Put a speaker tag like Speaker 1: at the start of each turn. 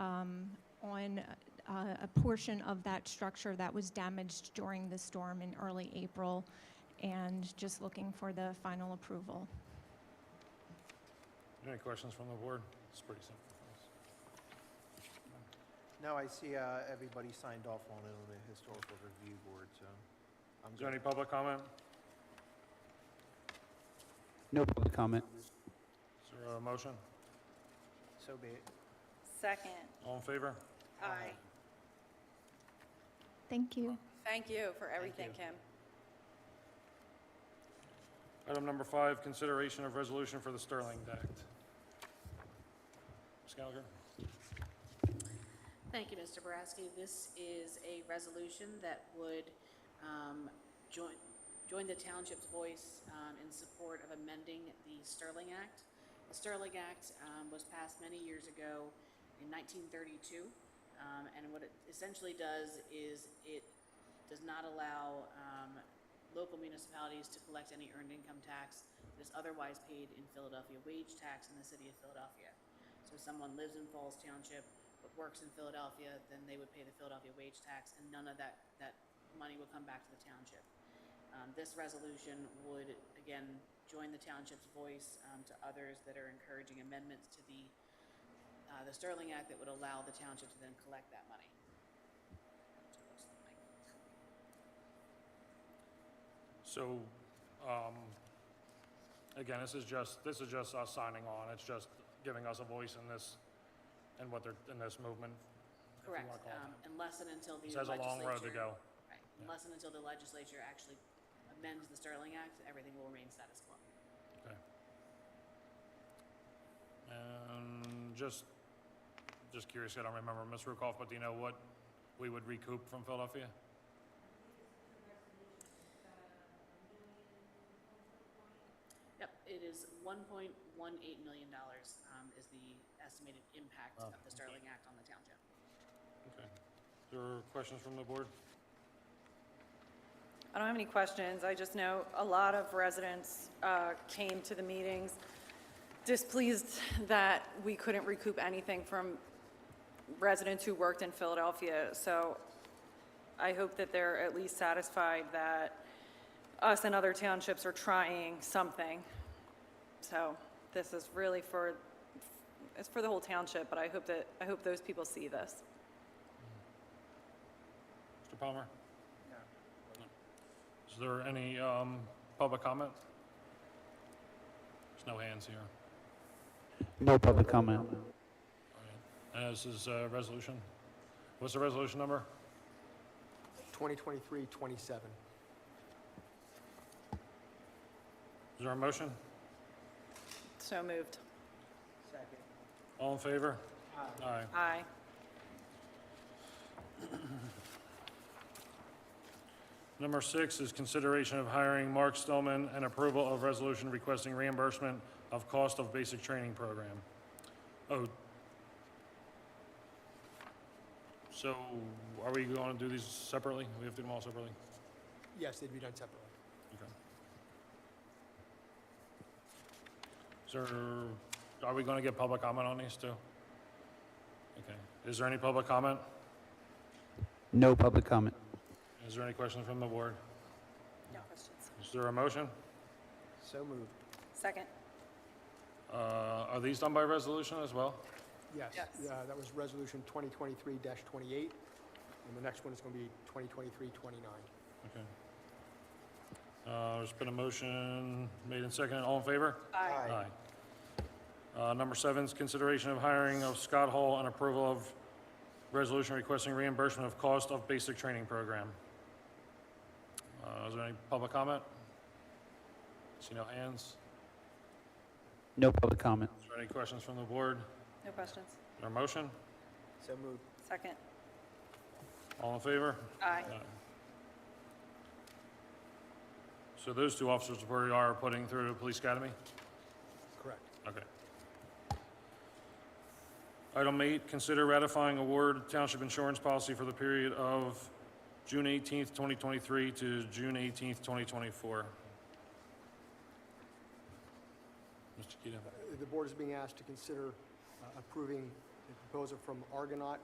Speaker 1: a, um, uh, a portion of that structure that was damaged during the storm in early April, and just looking for the final approval.
Speaker 2: Any questions from the board? It's pretty simple.
Speaker 3: No, I see uh, everybody signed off on it on the historical review board, so I'm
Speaker 2: Is there any
Speaker 3: good.
Speaker 2: public comment?
Speaker 4: No public comment.
Speaker 2: Is there a motion?
Speaker 3: So be it.
Speaker 5: Second.
Speaker 2: All in favor?
Speaker 5: Aye.
Speaker 1: Thank you.
Speaker 5: Thank you for everything, Kim.
Speaker 2: Item number five, consideration of resolution for the Sterling Act. Ms. Gallagher?
Speaker 6: Thank you, Mr. Boraski. This is a resolution that would um, join join the township's voice um, in support of amending the Sterling Act. The Sterling Act um, was passed many years ago in 1932, um, and what it essentially does is it does not allow um, local municipalities to collect any earned income tax that is otherwise paid in Philadelphia, wage tax in the city of Philadelphia. So if someone lives in Falls Township but works in Philadelphia, then they would pay the Philadelphia wage tax, and none of that, that money would come back to the township. Um, this resolution would, again, join the township's voice, um, to others that are encouraging amendments to the, uh, the Sterling Act that would allow the township to then collect that money.
Speaker 2: So, um, again, this is just, this is just us signing on. It's just giving us a voice in this, in what they're, in this movement. if you wanna
Speaker 6: Correct,
Speaker 2: call it
Speaker 6: um, unless and until
Speaker 2: that.
Speaker 6: the
Speaker 2: This
Speaker 6: legislature.
Speaker 2: has a long road to go.
Speaker 6: Right, unless and until the legislature actually amends the Sterling Act, everything will remain status quo.
Speaker 2: And just, just curious, I don't remember, Ms. Rukoff, but do you know what we would recoup from Philadelphia?
Speaker 6: Yep, it is one point one eight million dollars, um, is the estimated impact
Speaker 2: Wow.
Speaker 6: of the Sterling Act on the township.
Speaker 2: Okay. There are questions from the board?
Speaker 5: I don't have any questions. I just know a lot of residents uh, came to the meetings displeased that we couldn't recoup anything from residents who worked in Philadelphia. So I hope that they're at least satisfied that us and other townships are trying something. So this is really for, it's for the whole township, but I hope that, I hope those people see this.
Speaker 2: Mr. Palmer?
Speaker 3: No.
Speaker 2: Is there any um, public comment? There's no hands here.
Speaker 4: No public comment.
Speaker 2: All right. And this is a resolution. What's the resolution number?
Speaker 7: 2023-27.
Speaker 2: Is there a motion?
Speaker 5: So moved.
Speaker 3: Second.
Speaker 2: All in favor?
Speaker 3: Aye.
Speaker 2: Aye.
Speaker 5: Aye.
Speaker 2: Number six is consideration of hiring Mark Stillman and approval of resolution requesting reimbursement of cost of basic training program. Oh. So are we going to do these separately? We have to do them all separately?
Speaker 7: Yes, they'd be done separately.
Speaker 2: Okay. Is there, are we gonna get public comment on these too? Okay, is there any public comment?
Speaker 4: No public comment.
Speaker 2: Is there any questions from the board?
Speaker 5: No questions.
Speaker 2: Is there a motion?
Speaker 3: So moved.
Speaker 5: Second.
Speaker 2: Uh, are these done by resolution as well?
Speaker 7: Yes,
Speaker 5: Yes.
Speaker 7: yeah, that was Resolution 2023-28, and the next one is going to be 2023-29.
Speaker 2: Okay. Uh, there's been a motion made and seconded, all in favor?
Speaker 5: Aye.
Speaker 2: Uh, number seven is consideration of hiring of Scott Hall and approval of resolution requesting reimbursement of cost of basic training program. Uh, is there any public comment? See no hands.
Speaker 4: No public comment.
Speaker 2: Is there any questions from the board?
Speaker 5: No questions.
Speaker 2: Is there a motion?
Speaker 3: So moved.
Speaker 5: Second.
Speaker 2: All in favor?
Speaker 5: Aye.
Speaker 2: So those two officers we are putting through the police academy?
Speaker 7: Correct.
Speaker 2: Okay. Item eight, consider ratifying award township insurance policy for the period of June eighteenth, twenty twenty-three to June eighteenth, twenty twenty-four. Mr. Kita.
Speaker 7: Uh, The board is being asked to consider uh, approving the proposal from Argonaut